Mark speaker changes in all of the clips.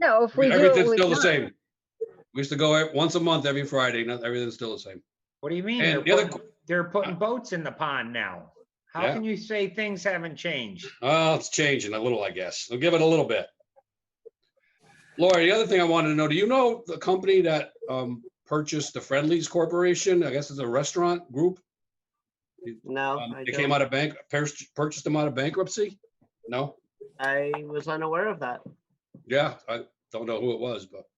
Speaker 1: No, if we do. it,
Speaker 2: Everything's
Speaker 1: we
Speaker 2: still the
Speaker 1: do it.
Speaker 2: same. We used to go ev- once a month, every Friday, and everything's still the same.
Speaker 3: What do you mean?
Speaker 2: And
Speaker 3: They're
Speaker 2: the other
Speaker 3: putting, they're putting boats in the pond now. How
Speaker 2: Yeah.
Speaker 3: can you say things haven't changed?
Speaker 2: Oh, it's changing a little, I guess. We'll give it a little bit. Laura, the other thing I wanted to know, do you know the company that um, purchased the Friendlies Corporation? I guess it's a restaurant group.
Speaker 4: No,
Speaker 2: Um,
Speaker 4: Uh, I
Speaker 2: They came
Speaker 4: don't.
Speaker 2: out of bank, pers- purchased them out of bankruptcy? No?
Speaker 4: I was unaware of that.
Speaker 2: Yeah, I don't know who it was, but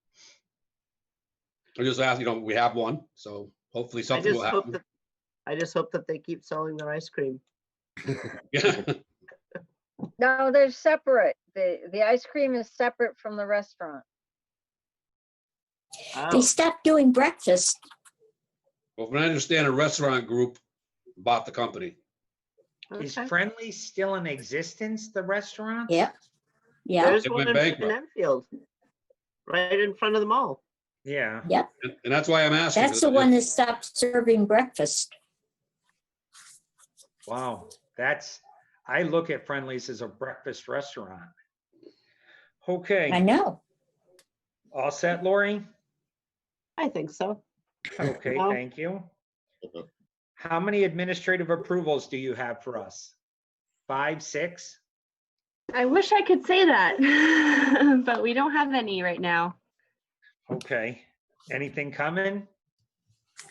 Speaker 2: I just asked, you know, we have one, so hopefully
Speaker 4: I
Speaker 2: something
Speaker 4: just
Speaker 2: will
Speaker 4: hope
Speaker 2: happen.
Speaker 4: that, I just hope that they keep selling their ice cream.
Speaker 2: Yeah,
Speaker 1: No, they're separate. The, the ice cream is separate from the restaurant.
Speaker 4: Oh,
Speaker 5: They stopped doing breakfast.
Speaker 2: well, from what I understand, a restaurant group bought the company.
Speaker 3: Is
Speaker 4: okay.
Speaker 3: Friendly still in existence, the restaurant?
Speaker 5: Yeah. Yeah,
Speaker 4: There's
Speaker 2: It
Speaker 4: one
Speaker 2: went
Speaker 4: in in
Speaker 2: bankrupt.
Speaker 4: Enfield, right in front of the mall.
Speaker 3: Yeah.
Speaker 2: And- And that's why I'm asking.
Speaker 5: that's the one that stopped serving breakfast.
Speaker 3: Wow, that's, I look at Friendly's as a breakfast restaurant.
Speaker 5: I
Speaker 3: Okay,
Speaker 5: know.
Speaker 3: all set, Lori?
Speaker 4: I think so.
Speaker 3: Okay,
Speaker 4: No.
Speaker 3: thank you. How many administrative approvals do you have for us? Five, six?
Speaker 6: I wish I could say that, but we don't have any right now.
Speaker 3: Okay, anything coming?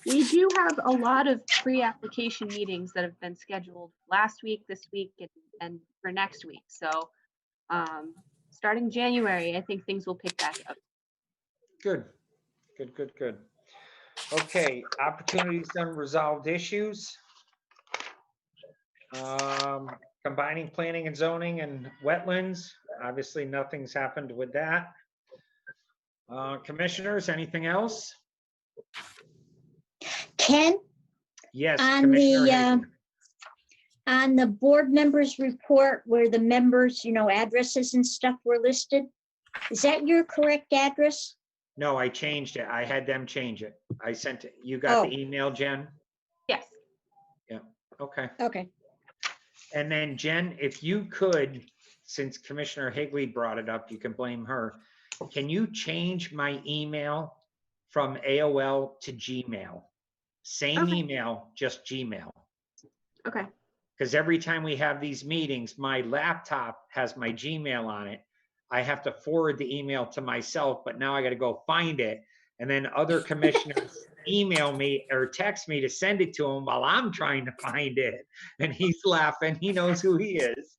Speaker 6: We do have a lot of pre-application meetings that have been scheduled last week, this week, and, and for next week. So, um, starting January, I think things will pick back up.
Speaker 3: Good, good, good, good. Okay, opportunities and resolved issues. Um, Combining planning and zoning and wetlands, obviously nothing's happened with that. Uh, Commissioners, anything else?
Speaker 5: Ken,
Speaker 3: Yes.
Speaker 5: On
Speaker 3: Commissioner
Speaker 5: the, uh,
Speaker 3: Hagan.
Speaker 5: on the board members report where the members, you know, addresses and stuff were listed, is that your correct address?
Speaker 3: No, I changed it. I had them change it. I sent, it. you
Speaker 5: Oh.
Speaker 3: got the email, Jen?
Speaker 6: Yes.
Speaker 3: Okay.
Speaker 5: Okay.
Speaker 3: And then Jen, if you could, since Commissioner Higley brought it up, you can blame her. Can you change my email from AOL to Gmail? Same
Speaker 6: Okay.
Speaker 3: email, just Gmail.
Speaker 6: Okay.
Speaker 3: Because every time we have these meetings, my laptop has my Gmail on it. I have to forward the email to myself, but now I gotta go find it. And then other commissioners email me or text me to send it to him while I'm trying to find it. And he's laughing. He knows who he is.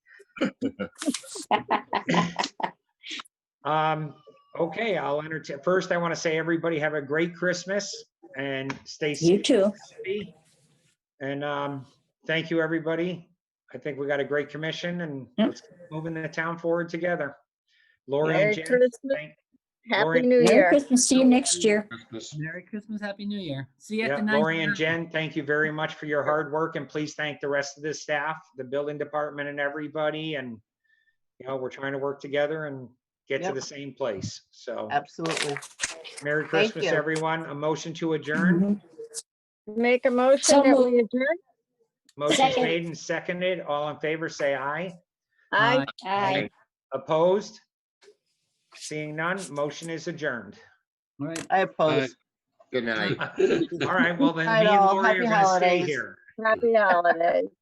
Speaker 3: Um, okay, I'll entertain. First, I want to say everybody have a great Christmas and stay safe.
Speaker 5: You too.
Speaker 3: Mississippi. And um, thank you, everybody. I think we got a great commission and
Speaker 5: Yep.
Speaker 3: let's keep moving the town forward together. Lori and
Speaker 1: Merry
Speaker 3: Jen,
Speaker 1: Christmas,
Speaker 3: thank-
Speaker 1: Happy
Speaker 3: Lori-
Speaker 1: New
Speaker 5: Merry
Speaker 1: Year.
Speaker 5: Christmas. See you next year.
Speaker 2: Christmas.
Speaker 7: Merry Christmas, Happy New Year. See you at
Speaker 3: yeah,
Speaker 7: the
Speaker 3: Lori and
Speaker 7: ninth.
Speaker 3: Jen, thank you very much for your hard work and please thank the rest of the staff, the building department and everybody. And, you know, we're trying to work together and get to
Speaker 4: Yep.
Speaker 3: the same place.
Speaker 2: Oh.
Speaker 3: So
Speaker 4: Absolutely.
Speaker 3: Merry
Speaker 4: Thank
Speaker 3: Christmas,
Speaker 4: you.
Speaker 3: everyone. A motion to adjourn.
Speaker 1: Make a motion
Speaker 5: So
Speaker 1: that
Speaker 5: moved.
Speaker 1: we adjourn.
Speaker 3: Motion's
Speaker 5: Second.
Speaker 3: made and seconded. All in favor, say aye.
Speaker 1: Aye.
Speaker 7: Bye.
Speaker 5: Aye.
Speaker 3: Opposed? Seeing none, motion is adjourned.
Speaker 7: All right.
Speaker 4: I oppose.
Speaker 8: Good night.
Speaker 3: All right, well then, me
Speaker 4: Right
Speaker 3: and
Speaker 4: all.
Speaker 3: Lori are
Speaker 4: Happy
Speaker 3: gonna stay
Speaker 4: holidays.
Speaker 3: here.
Speaker 1: Happy holidays.